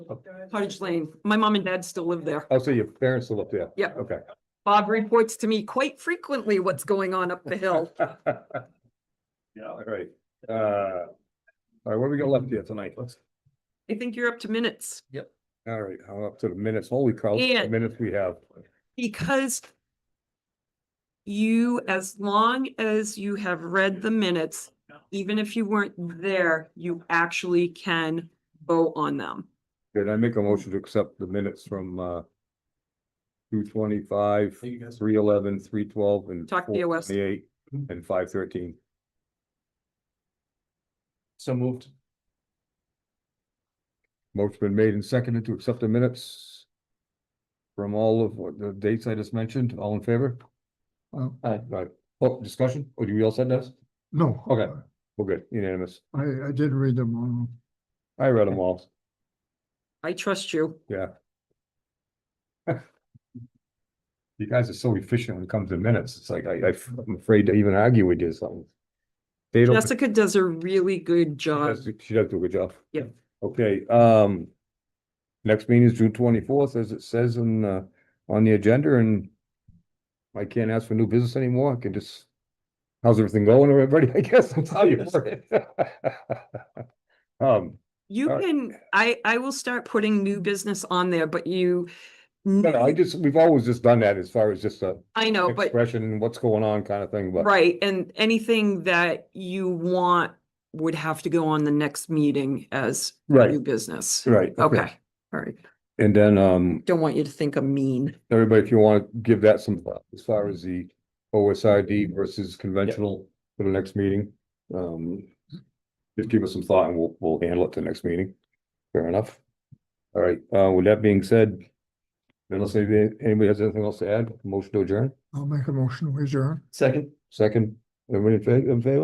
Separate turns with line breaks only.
Cottage Lane. My mom and dad still live there.
Oh, so your parents still up there?
Yep.
Okay.
Bob reports to me quite frequently what's going on up the hill.
Yeah, all right. Uh, all right, what do we got left here tonight? Let's,
I think you're up to minutes
all right, I'm up to the minutes. Holy cow, the
And-
minutes we have.
because you, as long as you have read the minutes, even if you weren't there, you actually can vote on them.
Did I make a motion to accept the minutes from, uh, two twenty-five,
Thank you guys.
three eleven, three twelve, and
Talk to you, Wes.
428, and five thirteen?
So moved.
Motion been made and seconded to accept the minutes from all of what the dates I just mentioned. All in favor?
Uh,
Aye.
Right. Oh, discussion? Or do you all said that?
No.
Okay. We're good, unanimous.
I, I did read them all.
I read them all.
I trust you.
You guys are so efficient when it comes to minutes. It's like, I, I'm afraid to even argue with you or something. They don't, she
Jessica does a really good job.
does she does do a good job.
Yeah.
Okay, um, next meeting is June twenty-fourth, as it says in, uh, on the agenda, and I can't ask for new business anymore. I can just, how's everything going, everybody? I guess that's how you word it. Um,
You
All right.
can, I, I will start putting new business on there, but you,
no, no, I just, we've always just done that as far as just uh, a
I know, Oh, but,
expression, what's going on kind of thing, but.
right, and anything that you want would have to go on the next meeting as
Right,
new business.
right.
Okay, all right.
And then, um,
Don't want you to think I'm mean.
everybody, if you want to give that some thought, as far as the
Mm-hmm.
OSID versus conventional for the next meeting. Um, just give us some thought and we'll, we'll handle it to the next meeting. Fair enough. All right, uh, with that being said, unless anybody, anybody has anything else to add, motion to adjourn,
I'll make a motion, we adjourn.
Second.
second, everybody in fa- in favor?